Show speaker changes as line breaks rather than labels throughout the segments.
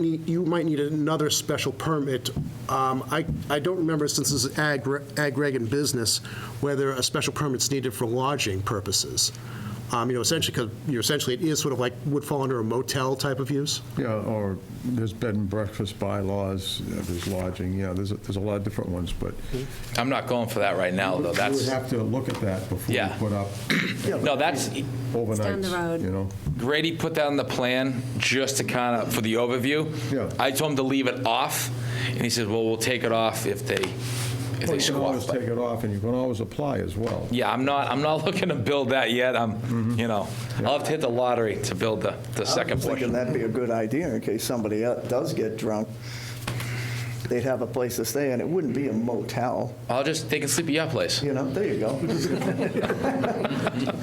need- you might need another special permit. Um, I I don't remember, since this is ag ag reg and business, whether a special permit's needed for lodging purposes. Um, You know, essentially, because, you know, essentially, it is sort of like, would fall under a motel type of use?
Yeah, or there's bed and breakfast bylaws, uh, there's lodging, yeah, there's, a- there's a lot of different ones, but
I'm not going for that right now, though.
we would
That's,
have to look at that before we
Yeah.
put up
no, that's,
down the road.
overnights, you know?
Grady put that on the plan just to kind of, for the overview.
Yeah.
I told him to leave it off, and he said, well, we'll take it off if they, if
Well,
they
You can always
squat.
take
But,
it off, and you can always apply as well.
Yeah, I'm not, I'm not looking to build that yet. I'm,
Mm-hmm.
you know, I'll have to hit the lottery to build the, the second
I was
portion.
thinking that'd be a good idea in case somebody el- does get drunk. They'd have a place to stay, and it wouldn't be a motel,
I'll just, they can sleep at your place.
you know, there you go.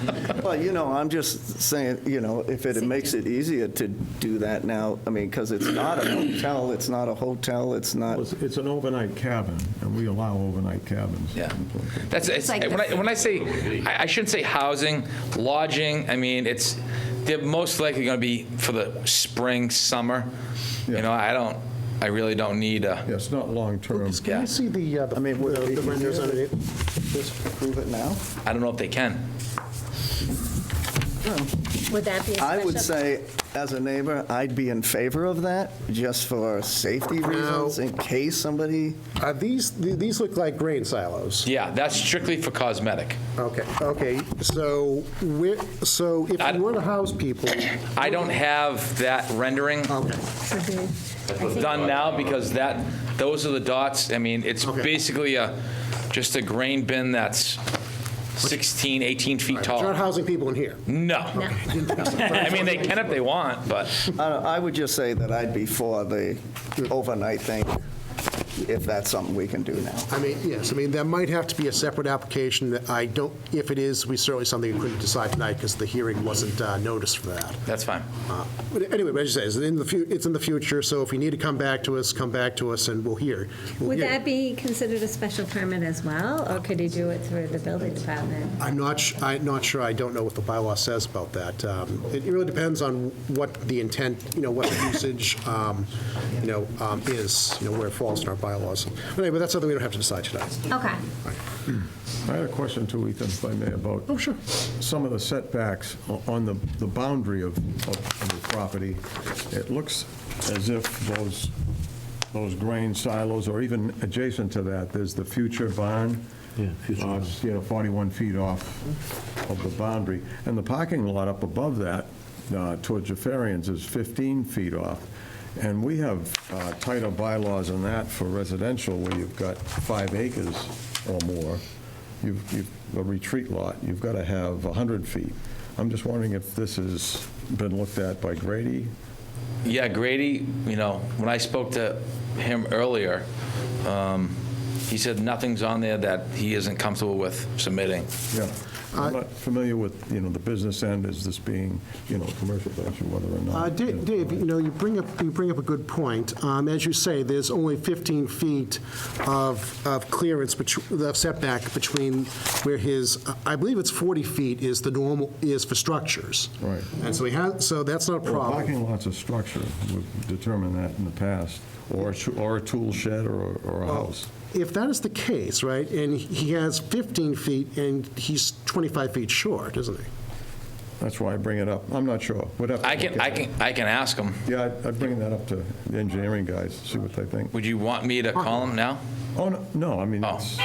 Well, you know, I'm just saying, you know, if it makes it easier to do that now, I mean, because it's not a motel, it's not a hotel, it's not,
Well, It's it's an overnight cabin, and we allow overnight cabins.
Yeah. That's, it's,
like
when I, when I say, I I shouldn't say housing, lodging, I mean, it's, they're most likely going to be for the spring, summer. You
Yeah.
know, I don't, I really don't need
Yeah,
a,
it's not long-term.
Lucas, Can
Yeah.
you see the, uh, the
I mean, would
the
it be
renders
easier
underneath?
just prove it now.
I don't know if they can.
Would that be a
I would
special-
say, as a neighbor, I'd be in favor of that, just for safety reasons, in case somebody,
Are these, these look like grain silos?
Yeah, that's strictly for cosmetic.
Okay, okay, so we're, so if
I-
you were to house people,
I don't have that rendering
okay,
done now because that, those are the dots. I mean, it's
Okay.
basically a, just a grain bin that's 16, 18 feet
you're not
tall.
housing people in here.
No. I mean, they can if they want, but
I don't- I would just say that I'd be for the overnight thing, if that's something we can do now.
I mean, yes, I mean, there might have to be a separate application that I don't, if it is, we certainly something we couldn't decide tonight because the hearing wasn't uh, noticed for that.
that's fine.
Uh, But anyway, but as you say, it's in the, fu- it's in the future, so if you need to come back to us, come back to us and we'll hear. we'll
Would
hear.
that be considered a special permit as well, or could he do it through the building department?
I'm not, su- I'm not sure, I don't know what the bylaw says about that. Um, It really depends on what the intent, you know, what the usage, um, you know, um, is, you know, where it falls in our bylaws. But anyway, that's something we don't have to decide tonight.
Okay,
I had a question too, Ethan, if I may, about. Some of the setbacks o- on the, the boundary of, of of the property. It looks as if those, those grain silos, or even adjacent to that, there's the future barn. Yeah, future barn. You know, 41 feet off of the boundary. And the parking lot up above that, uh, towards Jafarians, is 15 feet off. And we have uh, tighter bylaws on that for residential, where you've got five acres or more you've, you've- a retreat lot, you've got to have 100 feet. I'm just wondering if this has been looked at by Grady?
Yeah, Grady, you know, when I spoke to him earlier, um, he said nothing's on there that he isn't comfortable with submitting.
Yeah. I'm not familiar with, you know, the business end, is this being, you know, commercial, venture, whether or
Uh,
not.
Da- Dave, you know, you bring up, you bring up a good point. Um, As you say, there's only 15 feet of, of clearance, betw- the setback between where his, I believe it's 40 feet is the normal, is for structures.
Right.
And so he has, so that's not a
Well,
problem.
Parking lot's a structure, we've determined that in the past, or a shu- or a tool shed or or
Oh.
a house.
If that is the case, right, and he has 15 feet and he's 25 feet short, isn't he?
That's why I bring it up. I'm not sure. We'd have to
I
look
can,
at
I
it.
can, I can ask him.
Yeah, I'd- I'd bring that up to the engineering guys, see what they think.
Would you want me to call him now?
Oh, no, no, I mean,
Oh.
it's...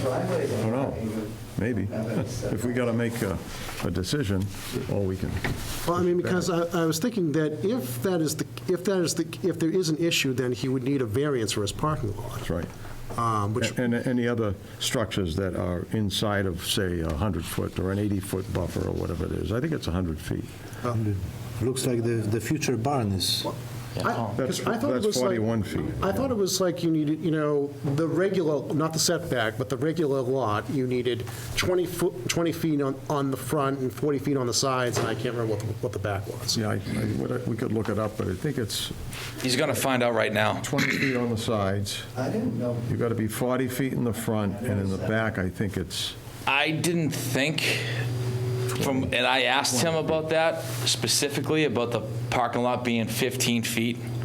I don't know, maybe. If we got to make a, a decision, or we can,
Well, I mean, because I, I was thinking that if that is the, if that is the, if there is an issue, then he would need a variance for his parking lot,
that's right.
um, which
And any other structures that are inside of, say, a 100-foot or an 80-foot buffer or whatever it is, I think it's 100 feet.
Looks like the, the future barn is,
I-
That's-
'cause I thought it
that's
was like-
41 feet.
I thought it was like you needed, you know, the regular, not the setback, but the regular lot, you needed 20 foot, 20 feet on, on the front and 40 feet on the sides, and I can't remember what, the- what the back was.
Yeah, I- I- what I- we could look it up, but I think it's
He's going to find out right now.
20 feet on the sides.
I didn't know.
You've got to be 40 feet in the front, and in the back, I think it's,
I didn't think from, and I asked him about that specifically, about the parking lot being 15 feet.